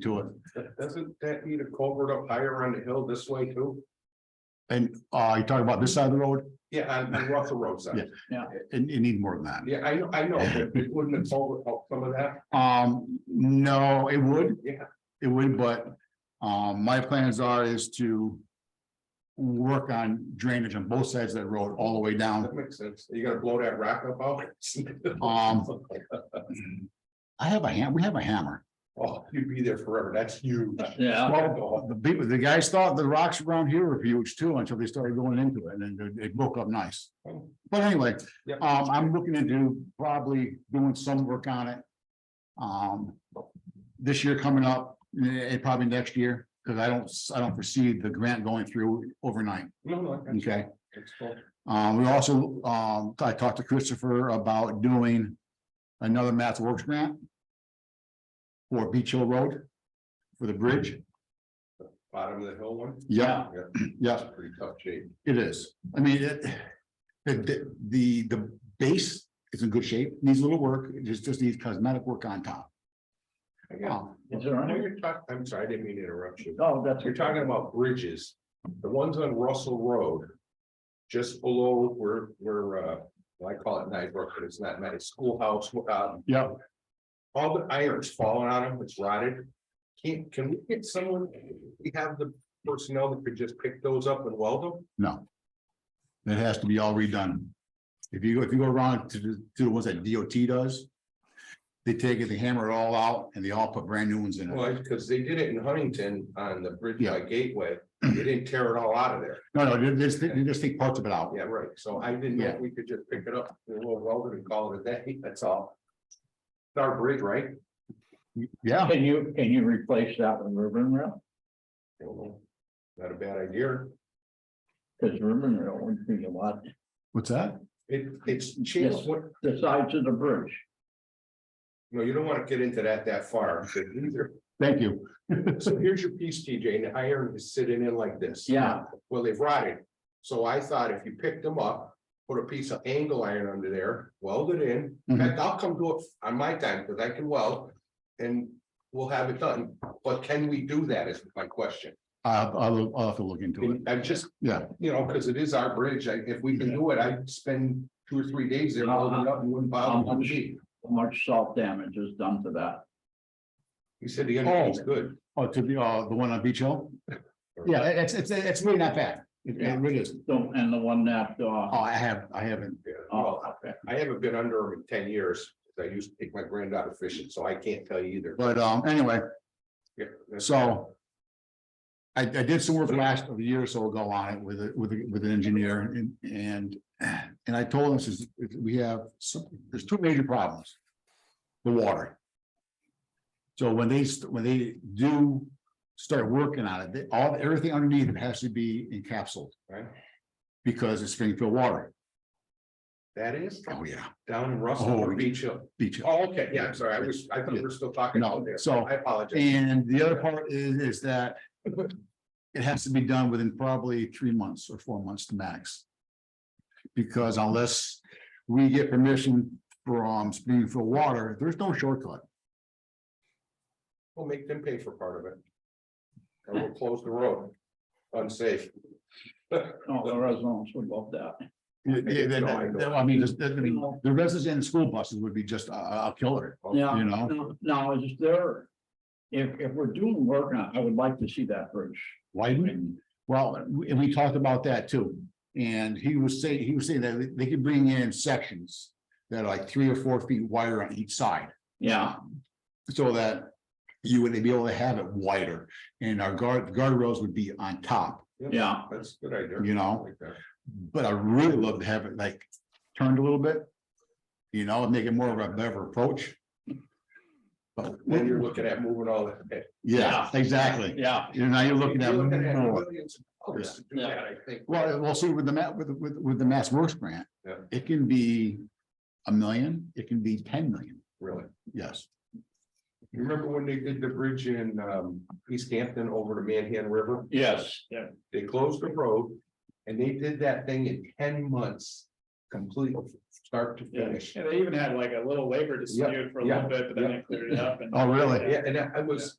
to it. Doesn't that need a culvert up higher on the hill this way too? And uh, you talking about this side of the road, Yeah, on, on Russell Road side. and you need more than that. Yeah, I know, I know, but it wouldn't have solved out some of that. Um, no, it would. Yeah. It would, but um, my plans are is to. Work on drainage on both sides of that road all the way down. That makes sense. You gotta blow that rock up out. Um, I have a ham, we have a hammer. Oh, you'd be there forever. That's huge. Yeah, Well, the people, the guys thought the rocks around here were huge too until they started going into it and then it broke up nice. But anyway, Yep. um, I'm looking to do probably doing some work on it. Um, this year coming up, eh, probably next year, because I don't, I don't foresee the grant going through overnight, No, no. I got you. okay? It's cool. Um, we also, um, I talked to Christopher about doing another Math Works grant. For Beach Hill Road. For the bridge, Bottom of the hill one. yeah, yeah, That's pretty tough shape. it is, I mean, it. The, the, the base is in good shape, needs a little work, it just, just needs cosmetic work on top. Oh, I got- is there When any? you're talking, I'm sorry, I didn't mean to interrupt you. No, Oh, that's. You're talking about bridges, the ones on Russell Road. Just below where, where, uh, well, I call it Nybrook, but it's not, Night schoolhouse, uh, Yeah, all the irons falling on them, it's rotted. Can, can we get someone, we have the personnel that could just pick those up and weld them? no. That has to be all redone. If you, go if you go around to, the- to the ones that DOT does. They take it, they hammer it all out, and they all put brand new ones in it. Well, because they did it in Huntington on the bridge by Yeah. Gateway, they didn't tear it all out of there. No, no, they just, they just take parts of it out. Yeah, right, so I didn't know if we could just pick it up, we'll weld it and call it a day, that's all. It's our bridge, right? Yeah, Can you, can you replace that with ribbon rail? Don't know. Not a bad idea. Cause ribbon rail would be a lot, what's that? It, it's cheap. Yes. What- the sides of the bridge. No, you don't want to get into that that far but either. Thank you. So here's your piece, TJ, and the iron is sitting in like this. Yeah, Well, they've rotted. So I thought if you picked them up, put a piece of angle iron under there, weld it in. Mm-hmm. In fact, I'll come do it on my time because I can weld and we'll have it done. But can we do that is my question. I'll, I'll, I'll have to look into it. I'm just, Yeah, you know, because it is our bridge. I- If we can do it, I'd spend two or three days there Uh-huh. welding up and wouldn't bother Um, one sheet. how much salt damage is done to that. You said the energy's good. oh, to the, uh, the one on Beach Hill? Yeah, it- it's, it's, it's really not bad. It it really is. Don't, and the one that, Oh, uh, I have, I haven't. Yeah, oh, well, okay. I haven't been under them in ten years. 'cause I used to take my granddaughter fishing, so I can't tell you either. But, um, anyway, Yeah, that's- so. I, I did some work last of a year or so ago on it with, a- with, a- with an engineer and, and, and I told him, says, we have some, there's two major problems. The water. So when they, st- when they do start working on it, they- all, everything underneath it has to be encapsulated Right, because it's Springfield water. that is Oh, yeah, down in Russell or Oh. Beach Hill. beach. Oh, okay, yeah, I'm sorry. I was, I thought we were still talking No, about there. so- I apologize. And the other part is, is that it has to be done within probably three months or four months max. Because unless we get permission from Springfield Water, there's no shortcut. We'll make them pay for part of it. And we'll close the road. Unsafe. No, oh, the residents would love that. Yeah, yeah, that- that- that- I mean, just- that- I mean, the residents and school buses would be just a, a a killer, Yeah. you know? Now- Now, is there, if, if we're doing work on, it, I would like to see that bridge. Widen, well, and we talked about that too. And he was saying, he was saying that they could bring in sections that are like three or four feet wider on each side. Yeah, So that you would be able to have it wider and our guard, guardrails would be on top, yeah, That's a good idea. you know? Like that. But I really love to have it like turned a little bit. You know, make it more of a better approach. But, Then you're looking at moving all that. yeah, exactly. yeah. You know, now you're looking at You're looking at more. millions of dollars to do Yeah. that, I think. Well, we'll see with the ma, with, with, with the Mass Works grant. Yeah. It can be a million, it can be ten million, Really. yes. You remember when they did the bridge in um East Hampton over the Manhan River? Yes, yeah, They closed the road and they did that thing in ten months, complete start to finish. Yeah, they even had like a little labor dispute for a little bit, but then they cleared it up and. Oh, really? Yeah, and I I was